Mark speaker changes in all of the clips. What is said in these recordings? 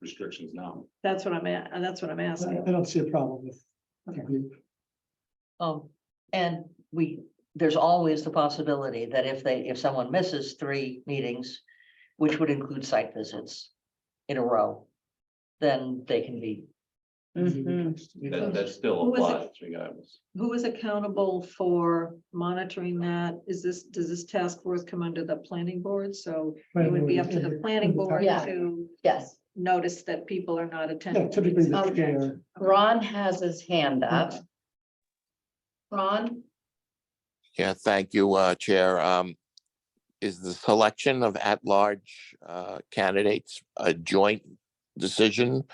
Speaker 1: restrictions now.
Speaker 2: That's what I'm at, that's what I'm asking.
Speaker 3: I don't see a problem with. the group.
Speaker 4: Um, and we, there's always the possibility that if they, if someone misses three meetings, which would include site visits in a row, then they can be,
Speaker 5: Mm-hmm.
Speaker 3: Mm-hmm.
Speaker 2: Mhm.
Speaker 1: That, that still
Speaker 2: Who is it?
Speaker 1: applies regardless.
Speaker 2: Who is accountable for monitoring that? Is this, does this task force come under the planning board? So it would be up to the planning board
Speaker 5: Yeah.
Speaker 2: to
Speaker 5: Yes,
Speaker 2: notice that people are not
Speaker 3: Yeah,
Speaker 2: attending.
Speaker 3: typically the
Speaker 5: Okay.
Speaker 3: chair.
Speaker 5: Ron has his hand up. Ron,
Speaker 6: Yeah, thank you, uh, Chair. Um, Is the selection of at-large uh, candidates a joint decision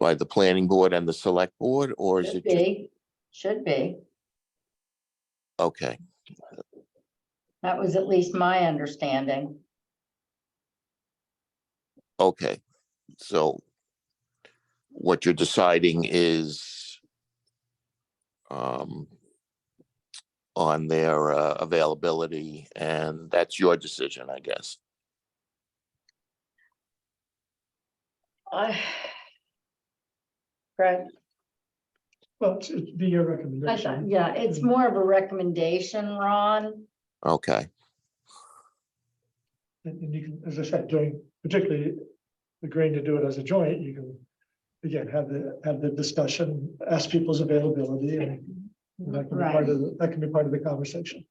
Speaker 6: by the planning board and the select board, or is
Speaker 5: should
Speaker 6: it? ju-
Speaker 5: be, should be.
Speaker 6: Okay,
Speaker 5: That was at least my understanding.
Speaker 6: okay. So what you're deciding is um, on their uh, availability, and that's your decision, I guess.
Speaker 5: I- Right,
Speaker 3: Well, it should be your
Speaker 5: I thought,
Speaker 3: recommendation.
Speaker 5: yeah, it's
Speaker 3: Mm-hmm.
Speaker 5: more of a recommendation, Ron.
Speaker 6: Okay,
Speaker 3: And and you can, as I said, doing particularly agreeing to do it as a joint, you can. Again, have the, have the discussion, ask people's availability and. and That can be part of, the- that can be part of the conversation.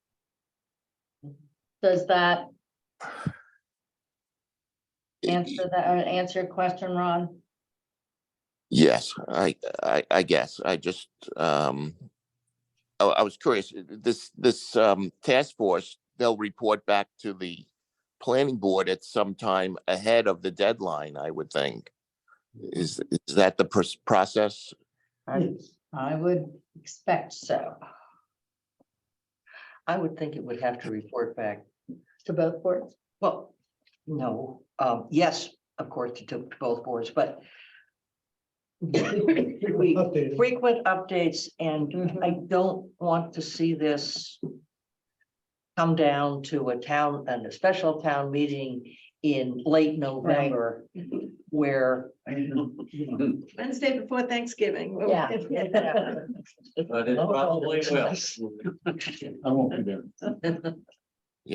Speaker 5: Does that
Speaker 6: Y-
Speaker 5: answer that, or answer your question, Ron?
Speaker 6: Yes, I, I, I guess, I just, um, I, I was curious, uh, this, this, um, task force, they'll report back to the planning board at some time ahead of the deadline, I would think. Is, is that the pros- process?
Speaker 4: I,
Speaker 5: I would expect so,
Speaker 4: I would think it would have to report back.
Speaker 5: to both boards.
Speaker 4: Well, no, um, yes, of course, to- to both boards, but We-
Speaker 3: Updated.
Speaker 4: frequent updates and
Speaker 5: Mhm.
Speaker 4: I don't want to see this come down to a town and a special town meeting in late November where
Speaker 2: Wednesday before Thanksgiving.
Speaker 5: Yeah.
Speaker 1: But it probably will. I won't be there.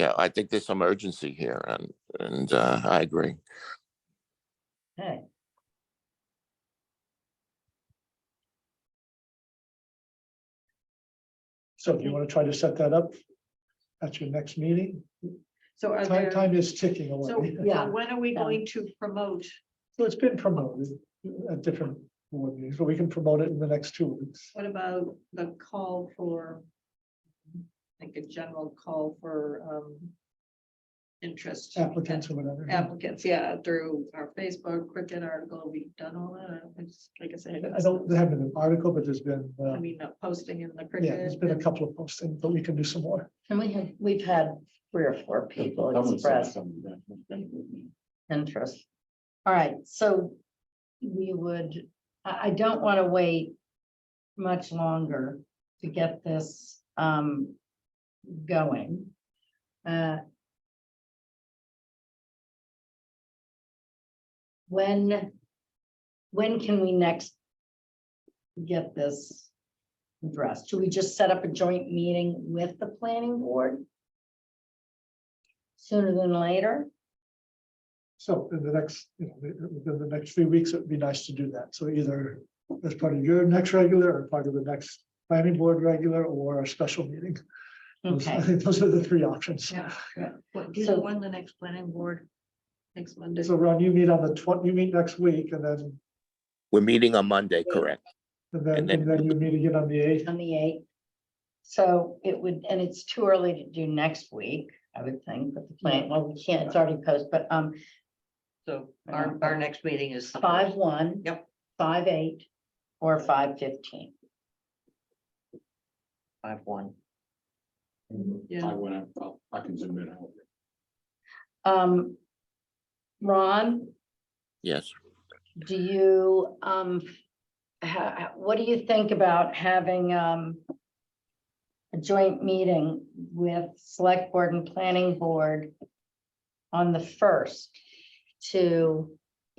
Speaker 6: Yeah, I think there's some urgency here and, and, uh, I agree.
Speaker 5: Okay.
Speaker 3: So if you want to try to set that up at your next meeting,
Speaker 2: So are
Speaker 3: time,
Speaker 2: there,
Speaker 3: time is ticking
Speaker 2: so
Speaker 3: away.
Speaker 5: Yeah.
Speaker 2: when are we going to promote?
Speaker 3: So it's been promoted at different board meetings, but we can promote it in the next two weeks.
Speaker 2: What about the call for? Like a general call for um. Interest.
Speaker 3: applicants or whatever.
Speaker 2: Applicants, yeah, through our Facebook, Cricket article, we've done all that, it's like I said.
Speaker 3: I don't, there haven't been an article, but there's been, uh,
Speaker 2: I mean, not posting in the
Speaker 3: yeah, there's
Speaker 2: Cricket.
Speaker 3: been a couple of postings, but we can do some more.
Speaker 5: And we have, we've had three or four people express interest. All right, so we would, I, I don't want to wait much longer to get this um going. Uh, When, when can we next get this addressed? Should we just set up a joint meeting with the planning board? Sooner than later?
Speaker 3: So in the next, you know, within the next few weeks, it'd be nice to do that. So either as part of your next regular or part of the next planning board regular or a special meeting. Those- I
Speaker 5: Okay.
Speaker 3: think those are the three options.
Speaker 2: Yeah, yeah. What, do you
Speaker 5: So-
Speaker 2: know when the next planning board? Next Monday,
Speaker 3: So Ron, you meet on the twenty, you meet next week and then,
Speaker 6: We're meeting on Monday, correct?
Speaker 3: and then,
Speaker 6: And then-
Speaker 3: and then you meet again on the eighth.
Speaker 5: on the eighth. So it would, and it's too early to do next week, I would think, but the plan, well, we can't, it's already posted, but um,
Speaker 4: So our, our next meeting is. the
Speaker 5: five
Speaker 4: first.
Speaker 5: one.
Speaker 4: Yep.
Speaker 5: Five eight or five fifteen.
Speaker 4: Five one.
Speaker 2: yeah,
Speaker 1: I went, I'll- I can zoom in. I'll-
Speaker 5: Um, Ron,
Speaker 6: Yes.
Speaker 5: do you um, ha- what do you think about having um a joint meeting with select board and planning board on the first to